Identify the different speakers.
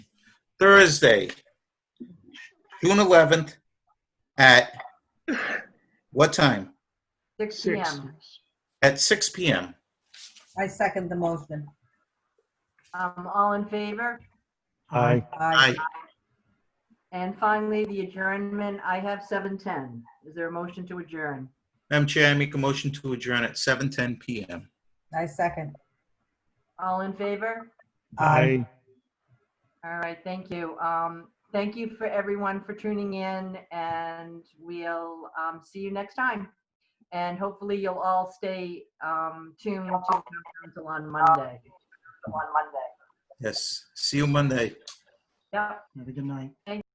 Speaker 1: Thursday, June 11th, at what time?
Speaker 2: Six
Speaker 3: Six.
Speaker 2: PM.
Speaker 1: At 6 PM.
Speaker 4: I second the motion.
Speaker 2: Um, all in favor?
Speaker 3: Aye.
Speaker 1: I,
Speaker 4: Aye.
Speaker 2: And finally, the adjournment, I have 7:10. Is there a motion to adjourn?
Speaker 1: Madam Chair, I make a motion to adjourn at 7:10 PM.
Speaker 4: I second.
Speaker 2: All in favor? All right, thank you. Um, thank you for everyone for tuning in and we'll, um, see you next time. And hopefully you'll all stay, um, tuned to Town Council on Monday. On Monday.
Speaker 1: Yes, see you Monday.
Speaker 2: Yep.
Speaker 3: Have a good night.